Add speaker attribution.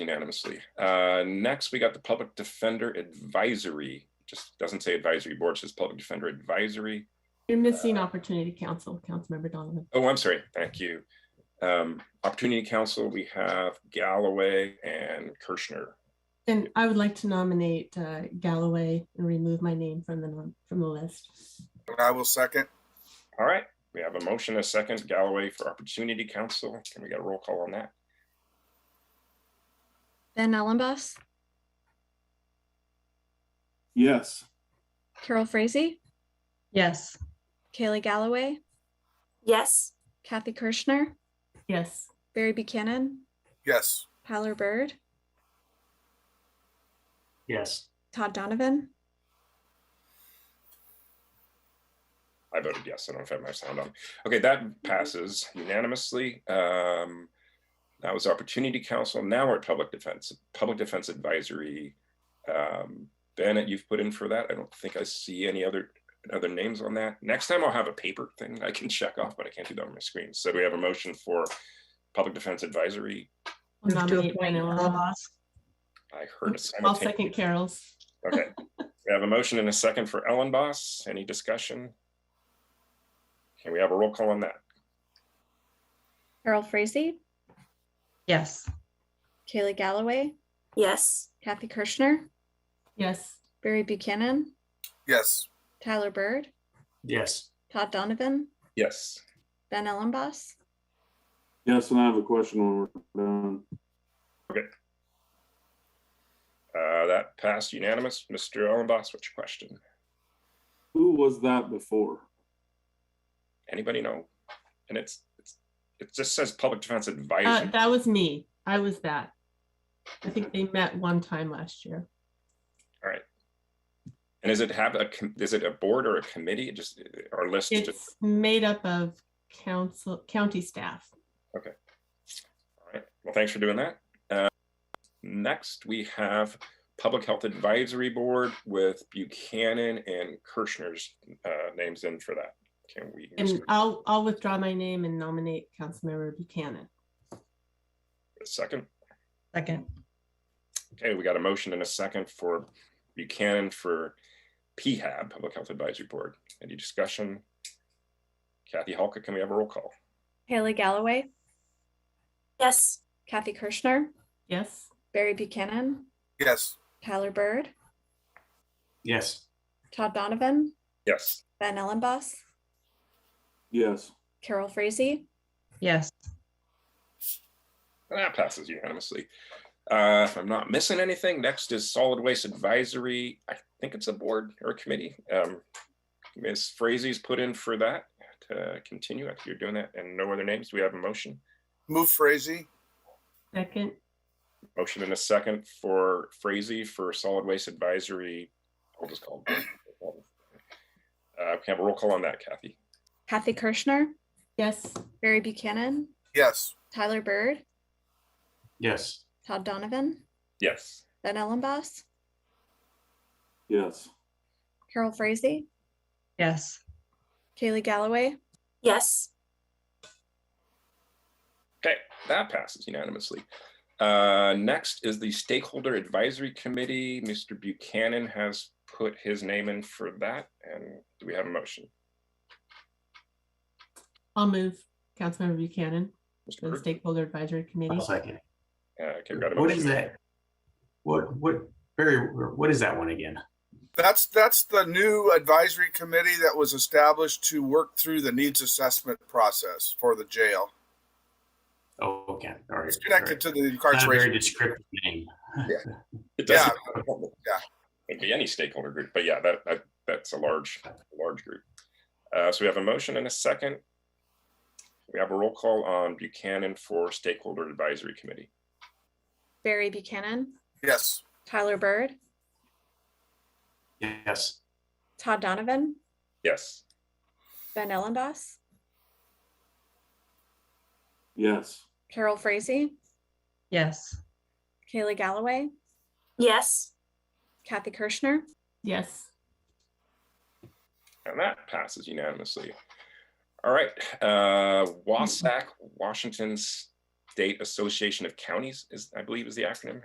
Speaker 1: unanimously. Uh, Next, we got the Public Defender Advisory. Just doesn't say advisory board, it says Public Defender Advisory.
Speaker 2: You're missing opportunity council, Councilmember Donovan.
Speaker 1: Oh, I'm sorry. Thank you. Um, Opportunity Council, we have Galloway and Kirschner.
Speaker 2: And I would like to nominate uh, Galloway and remove my name from the, nom- from the list.
Speaker 3: And I will second.
Speaker 1: All right, we have a motion, a second, Galloway for Opportunity Council. Can we get a roll call on that?
Speaker 4: Ben Ellenboss,
Speaker 5: Yes.
Speaker 4: Carol Frazee,
Speaker 6: yes,
Speaker 4: Kaylee Galloway,
Speaker 7: yes,
Speaker 4: Kathy Kirschner,
Speaker 2: Yes,
Speaker 4: Barry Buchanan,
Speaker 3: Yes.
Speaker 4: Tyler Bird,
Speaker 8: yes,
Speaker 4: Todd Donovan,
Speaker 1: I voted yes. I don't know if I have my sound on. Okay,
Speaker 2: Mm-hmm.
Speaker 1: that passes unanimously. Um, that was Opportunity Council. Now we're at Public Defense, Public Defense Advisory. Um, Bennett, you've put in for that. I don't think I see any other other names on that. Next time I'll have a paper thing I can check off, but I can't do that on my screen. So do we have a motion for Public Defense Advisory?
Speaker 2: I'll
Speaker 6: move to
Speaker 2: nominate
Speaker 6: appoint
Speaker 2: Ben Ellenboss.
Speaker 6: Ellenboss.
Speaker 1: I heard a
Speaker 2: I'll
Speaker 1: simultaneous.
Speaker 2: second Carol's.
Speaker 1: Okay, we have a motion and a second for Ellen Boss. Any discussion? Can we have a roll call on that?
Speaker 4: Carol Frazee,
Speaker 6: yes,
Speaker 4: Kaylee Galloway,
Speaker 7: yes,
Speaker 4: Kathy Kirschner,
Speaker 2: Yes,
Speaker 4: Barry Buchanan,
Speaker 3: Yes.
Speaker 4: Tyler Bird,
Speaker 8: yes,
Speaker 4: Todd Donovan,
Speaker 1: Yes.
Speaker 4: Ben Ellenboss,
Speaker 5: Yes, and I have a question when we're done.
Speaker 1: Uh, that passed unanimous. Mr. Ellenboss, what's your question?
Speaker 5: Who was that before?
Speaker 1: Anybody know? And it's, it's, it just says public defense
Speaker 2: uh,
Speaker 1: advisory.
Speaker 2: that was me. I was that. I think they met one time last year.
Speaker 1: And is it have a, com- is it a board or a committee? It Just, our list, just-
Speaker 2: It's made up of council, county staff.
Speaker 1: all right. Well, thanks for doing that. Uh, Next, we have Public Health Advisory Board with Buchanan and Kirschner's uh, names in for that. Can we?
Speaker 2: And I'll, I'll withdraw my name and nominate Councilmember Buchanan.
Speaker 1: A Second.
Speaker 6: second,
Speaker 1: Okay, we got a motion and a second for Buchanan for PHAB, Public Health Advisory Board. Any discussion? Kathy Halka, can we have a roll call?
Speaker 4: Kaylee Galloway,
Speaker 7: yes,
Speaker 4: Kathy Kirschner,
Speaker 2: Yes,
Speaker 4: Barry Buchanan,
Speaker 3: Yes.
Speaker 4: Tyler Bird,
Speaker 8: yes,
Speaker 4: Todd Donovan,
Speaker 1: Yes.
Speaker 4: Ben Ellenboss,
Speaker 5: Yes.
Speaker 4: Carol Frazee,
Speaker 6: yes,
Speaker 1: That passes unanimously. Uh, If I'm not missing anything, next is Solid Waste Advisory. I think it's a board or a committee. Um, Ms. Frazee's put in for that to continue. If you're doing that and no other names, do we have a motion?
Speaker 3: Move Frazee.
Speaker 2: second,
Speaker 1: Motion and a second for Frazee for solid waste advisory. I'll just call. it. Uh, can I have a roll call on that, Kathy?
Speaker 4: Kathy Kirschner,
Speaker 2: yes,
Speaker 4: Barry Buchanan,
Speaker 3: Yes.
Speaker 4: Tyler Bird,
Speaker 8: yes,
Speaker 4: Todd Donovan,
Speaker 1: Yes.
Speaker 4: Ben Ellenboss,
Speaker 5: Yes.
Speaker 4: Carol Frazee,
Speaker 6: yes,
Speaker 4: Kaylee Galloway,
Speaker 7: yes,
Speaker 1: Okay, that passes unanimously. Uh, next is the stakeholder advisory committee. Mr. Buchanan has put his name in for that. And do we have a motion?
Speaker 2: I'll move Councilmember Buchanan
Speaker 1: Mr.
Speaker 2: to the
Speaker 1: Bird?
Speaker 2: stakeholder advisory committee.
Speaker 8: I'll second. it.
Speaker 1: Uh, okay, we got a
Speaker 8: What is
Speaker 1: motion.
Speaker 8: that? What, what, Barry, what is that one again?
Speaker 3: That's that's the new advisory committee that was established to work through the needs assessment process for the jail.
Speaker 8: Oh, okay, all right.
Speaker 3: It's
Speaker 8: all right.
Speaker 3: connected to the
Speaker 8: Not a very
Speaker 3: incarceration.
Speaker 8: descriptive name.
Speaker 1: It
Speaker 3: Yeah.
Speaker 1: doesn't.
Speaker 3: Yeah.
Speaker 1: It'd be any stakeholder group, but yeah, that, that, that's a large, large group. Uh, so we have a motion and a second. We have a roll call on Buchanan for Stakeholder Advisory Committee.
Speaker 4: Barry Buchanan,
Speaker 3: Yes.
Speaker 4: Tyler Bird,
Speaker 8: Yes,
Speaker 4: Todd Donovan,
Speaker 1: Yes.
Speaker 4: Ben Ellenboss,
Speaker 5: Yes.
Speaker 4: Carol Frazee,
Speaker 6: yes,
Speaker 4: Kaylee Galloway,
Speaker 7: yes,
Speaker 4: Kathy Kirschner,
Speaker 2: Yes,
Speaker 1: And that passes unanimously. All right, uh, Wasac, Washington State Association of Counties is, I believe, is the acronym.